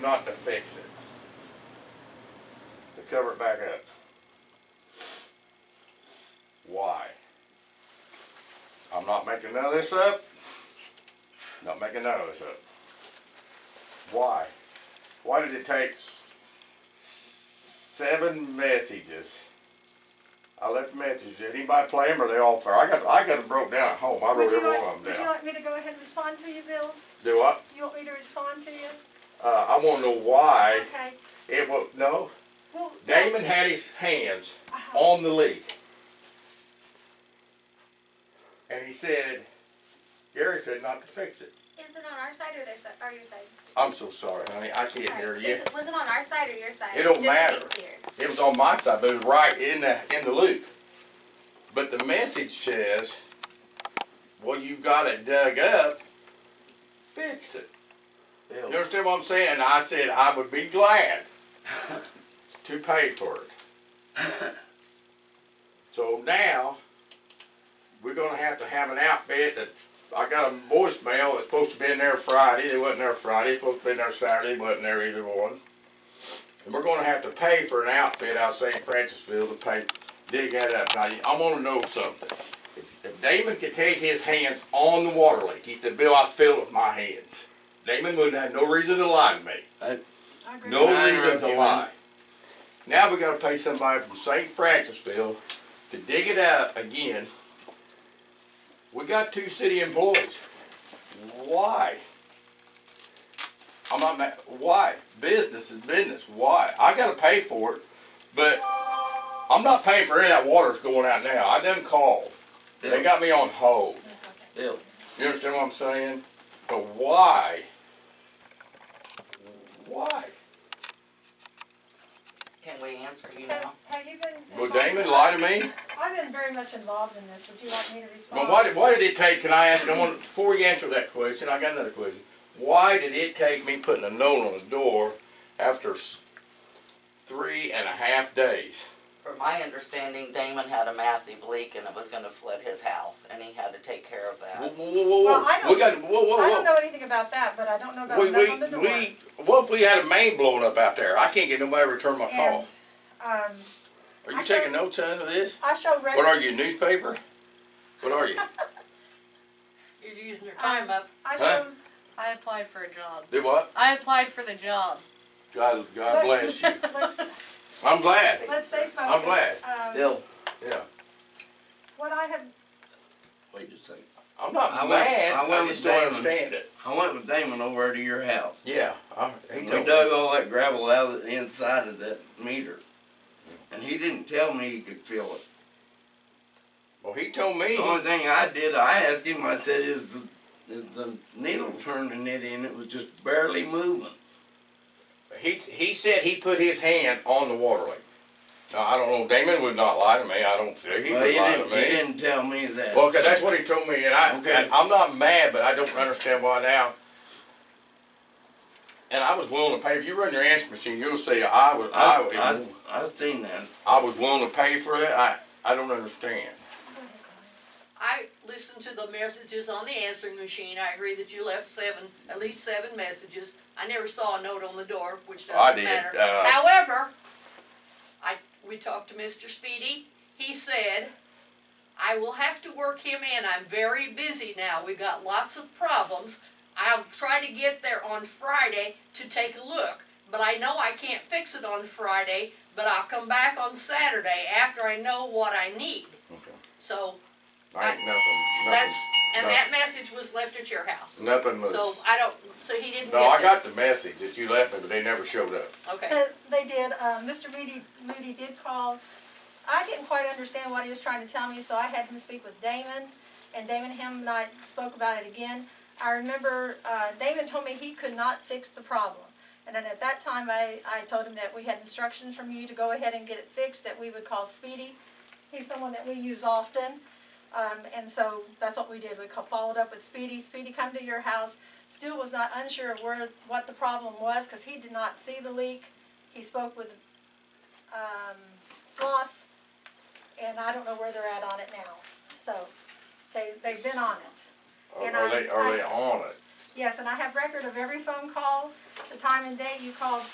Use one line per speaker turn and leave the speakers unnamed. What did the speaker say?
not to fix it. To cover it back up. Why? I'm not making none of this up. Not making none of this up. Why? Why did it take s- seven messages? I left messages. Did anybody play them or they all fair? I got I got them broke down at home. I
Would
wrote
you
every
like,
one of them
would you
down.
like me to go ahead and respond to you, Bill?
Do I?
You want me to respond to you?
Uh, I want to know why
Okay.
it was no.
Well,
Damon had his hands
Uh-huh.
on the leak. And he said, Gary said not to fix it.
Is it on our side or their side, or your side?
I'm so sorry, honey. I can't hear
Sorry.
you.
Is it- Was it on our side or your side?
It don't
Just to be
matter.
clear.
It was on my side, but it was right in the in the loop. But the message says, "Well, you got it dug up. Fix it." You understand what I'm saying? I said I would be glad to pay for it. so now we're gonna have to have an outfit that I got a voicemail that's supposed to be in there Friday. They wasn't there Friday. Supposed to be in there Saturday. Wasn't there either one. And we're gonna have to pay for an outfit out of St. Francisville to pay, dig that up. Now, I wanna know something. If- If Damon could take his hands on the water leak, he said, Bill, I feel it with my hands. Damon wouldn't have no reason to lie to me.
I agree
No
with you.
I
reason
interrupt
to
you,
lie. Now we gotta pay somebody from St. Francisville to dig it up again. We got two city employees. Why? I'm not mad, why? Business is business, why? I gotta pay for it, but I'm not paying for any of that water that's going out now. I done called. They got me on hold.
Bill,
You understand what I'm saying? But why? Why?
can we answer you
Have,
now?
have you been?
Would Damon lie to me?
I've been very much involved in this. Would you like me to respond?
But why did, why did it take, can I ask, I want, before you answer that question, I got another question. Why did it take me putting a note on the door after s- three and a half days?
From my understanding, Damon had a massive leak and it was gonna flood his house and he had to take care of
Whoa,
that.
whoa, whoa, whoa,
Well, I
whoa, we got,
don't-
whoa, whoa,
I don't
whoa.
know anything about that, but I don't know about
We,
a knock on the
we,
door.
we, what if we had a main blowing up out there? I can't get nobody to return my
And,
call.
um,
Are
I
you
showed-
taking notes under this?
I showed
What
record,
are you, newspaper? What are you?
You're using your time up.
I
huh?
showed,
I applied for a job.
Do what?
I applied for the job.
God, God
Let's-
bless you.
let's,
I'm glad.
let's stay focused.
I'm glad.
Um,
Bill,
Yeah.
What I have,
Wait just a second.
I'm not
I went-
mad.
I
I,
went
just
with
don't
Damon.
understand it.
I went with Damon over to your house.
Yeah. I, he
We
told me.
dug all that gravel out of the inside of that meter. And he didn't tell me he could feel it.
Well, he told me.
The only thing I did, I asked him, I said, is the, is the needle turning it in? It was just barely moving.
He he said he put his hand on the water leak. Now I don't know. Damon would not lie to me. I don't think he
Well,
would
he
lie to
didn't, he
me.
didn't tell me that.
Well, 'cause that's what he told me, and I
Okay.
and I'm not mad, but I don't understand why now. And I was willing to pay. If you run your answer machine, you'll see. I was I, was
I, I, I've seen that.
I was willing to pay for it. I I don't understand.
I listened to the messages on the answering machine. I agree that you left seven, at least seven messages. I never saw a note on the door, which
I
doesn't
did,
matter.
uh,
However, I, we talked to Mr. Speedy. He said, I will have to work him in. I'm very busy now. We've got lots of problems. I'll try to get there on Friday to take a look. But I know I can't fix it on Friday, but I'll come back on Saturday after I know what I need.
Okay.
So
I ain't
that's,
nothing.
and
no.
that message was left at your house.
Nothing. Nothing. was-
So I don't, so he didn't get
no, I got
that.
the message that you left me, but they never showed up.
Okay,
Uh, They did, uh, Mr. Moody, Moody did call. I didn't quite understand what he was trying to tell me, so I had him speak with Damon, and Damon, him and I spoke about it again. I remember, uh, Damon told me he could not fix the problem. And then at that time, I, I told him that we had instructions from you to go ahead and get it fixed, that we would call Speedy. He's someone that we use often. Um, and so that's what we did. We co- followed up with Speedy. Speedy come to your house. Still was not unsure of where what the problem was because he did not see the leak. He spoke with um, Sloss, and I don't know where they're at on it now. So they they've been on it.
Are,
And
are
I-
they are they
I-
on it?
Yes, and I have record of every phone call, the time and date you called